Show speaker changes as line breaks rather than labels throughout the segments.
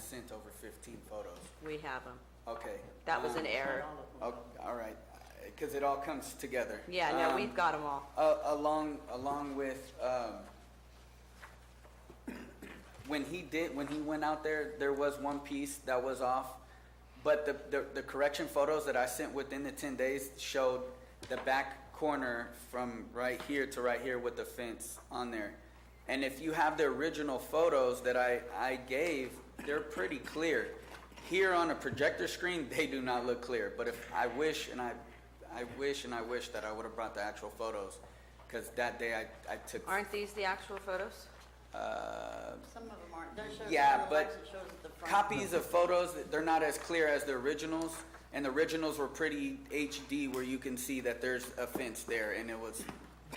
sent over fifteen photos.
We have them.
Okay.
That was an
um,
error.
Oh, all right, because it all comes together.
Yeah, no,
Um,
we've got them all.
a- Along, along with, um, when he did, when he went out there, there was one piece that was off. But the, the, the correction photos that I sent within the ten days showed the back corner from right here to right here with the fence on there. And if you have the original photos that I, I gave, they're pretty clear. Here on a projector screen, they do not look clear, but if, I wish, and I, I wish and I wish that I would have brought the actual photos, because that day I, I took,
Aren't these the actual photos?
uh,
Some of them aren't, those show
Yeah,
the
but
lights, it shows at the front.
copies of photos, they're not as clear as the originals, and the originals were pretty HD where you can see that there's a fence there, and it was,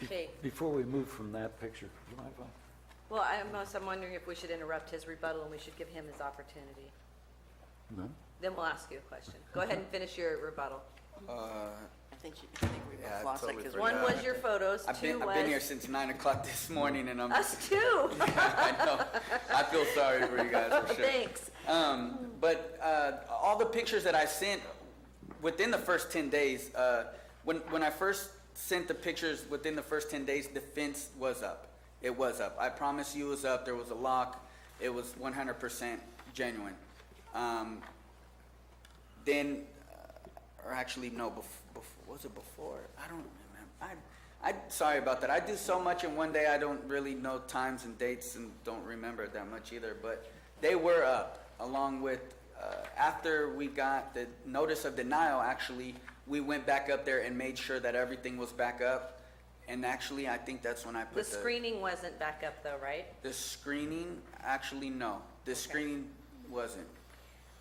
Okay.
Before we move from that picture, do you mind if I-
Well, I'm also I'm wondering if we should interrupt his rebuttal and we should give him his opportunity.
No?
Then we'll ask you a question. Go ahead and finish your rebuttal.
uh,
I think she, I think we
Yeah, I
both lost it
totally
because.
One was your photos,
I've
two
been, I've been here
was
since nine o'clock this morning, and I'm,
us too.
I know, I feel sorry for you guys, for sure.
Thanks.
Um, but uh, all the pictures that I sent within the first ten days, uh, when when I first sent the pictures within the first ten days, the fence was up. It was up. I promise you, it was up. There was a lock. It was 100% genuine. Um, then, uh, or actually, no, bef- bef- was it before? I don't remember. I, I, sorry about that. I do so much in one day, I don't really know times and dates and don't remember that much either. But they were up, along with, uh, after we got the notice of denial, actually, we went back up there and made sure that everything was back up. And actually, I think that's when I put
The screening wasn't back up though, right?
The screening, actually, no. The screening wasn't.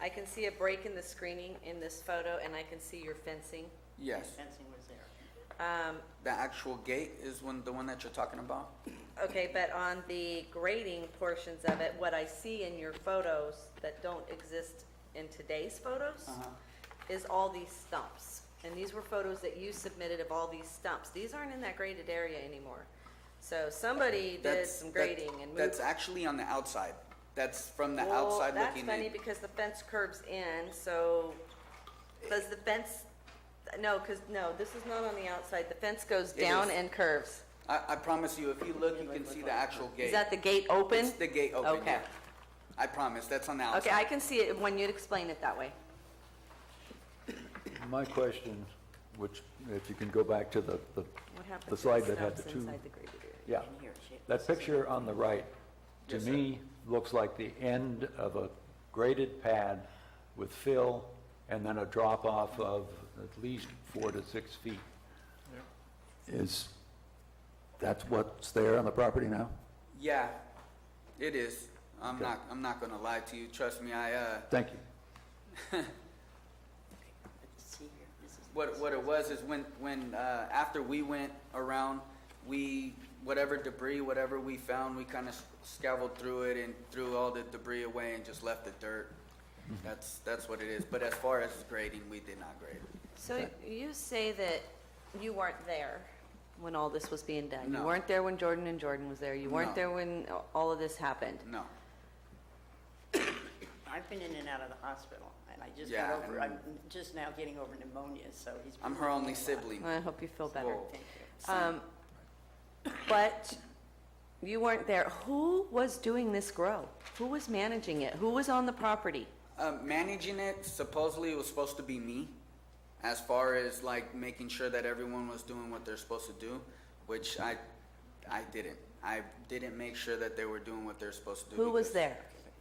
I can see a break in the screening in this photo and I can see your fencing.
Yes.
Fencing was there.
Um,
The actual gate is when, the one that you're talking about?
Okay, but on the grading portions of it, what I see in your photos that don't exist in today's photos
Uh-huh.
is all these stumps. And these were photos that you submitted of all these stumps. These aren't in that graded area anymore. So somebody did
That's-
some
that-
grading and moved.
That's actually on the outside. That's from the
Well,
outside
that's
looking
funny
in.
because the fence curves in, so does the fence, no, because, no, this is not on the outside. The fence goes
It
down
is.
and curves.
I, I promise you, if you look, you can see the actual gate.
Is that the gate open?
It's the gate open,
Okay.
yeah. I promise, that's on the outside.
Okay, I can see it when you'd explain it that way.
My question, which, if you can go back to the, the-
What happened
the
to
slide that had
stumps
the two,
inside the graded area?
yeah.
In here, she-
That picture on the right, to
Yes, sir.
me, looks like the end of a graded pad with fill and then a drop-off of at least four to six feet. Is, that's what's there on the property now?
Yeah, it is. I'm
Okay.
not, I'm not gonna lie to you. Trust me, I, uh,
Thank you.
Let's See here, this is.
What, what it was is when, when, uh, after we went around, we, whatever debris, whatever we found, we kind of scavenged through it and threw all the debris away and just left the dirt. That's, that's what it is. But as far as grading, we did not grade.
So you say that you weren't there when all this was being done? You
No.
weren't there when Jordan and Jordan was there? You weren't
No.
there when all of this happened?
No.
I've been in and out of the hospital and I just got
Yeah,
over, I'm
and-
just now getting over pneumonia, so he's. been
I'm her
working
only
a lot.
sibling.
I hope you feel better.
Whoa.
Thank you.
Um, But you weren't there. Who was doing this grow? Who was managing it? Who was on the property?
Uh, managing it supposedly it was supposed to be me, as far as like making sure that everyone was doing what they're supposed to do, which I, I didn't. I didn't make sure that they were doing what they're supposed to do.
Who was
because-
there?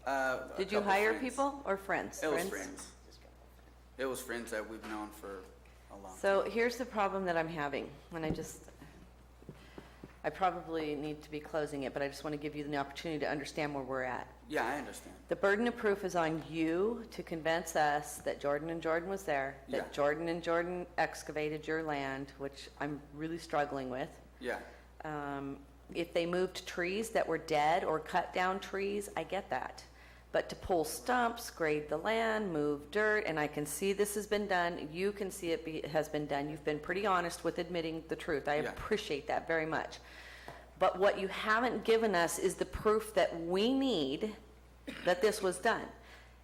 Uh, a
Did you
couple
hire
friends.
people or friends?
It was friends.
Just got over.
It was friends that we've known for a long. time.
So here's the problem that I'm having, and I just, I probably need to be closing it, but I just want to give you the opportunity to understand where we're at.
Yeah, I understand.
The burden of proof is on you to convince us that Jordan and Jordan was there,
Yeah.
that Jordan and Jordan excavated your land, which I'm really struggling with.
Yeah,
Um, If they moved trees that were dead or cut down trees, I get that. But to pull stumps, grade the land, move dirt, and I can see this has been done, you can see it be- has been done. You've been pretty honest with admitting the truth. I
Yeah.
appreciate that very much. But what you haven't given us is the proof that we need that this was done.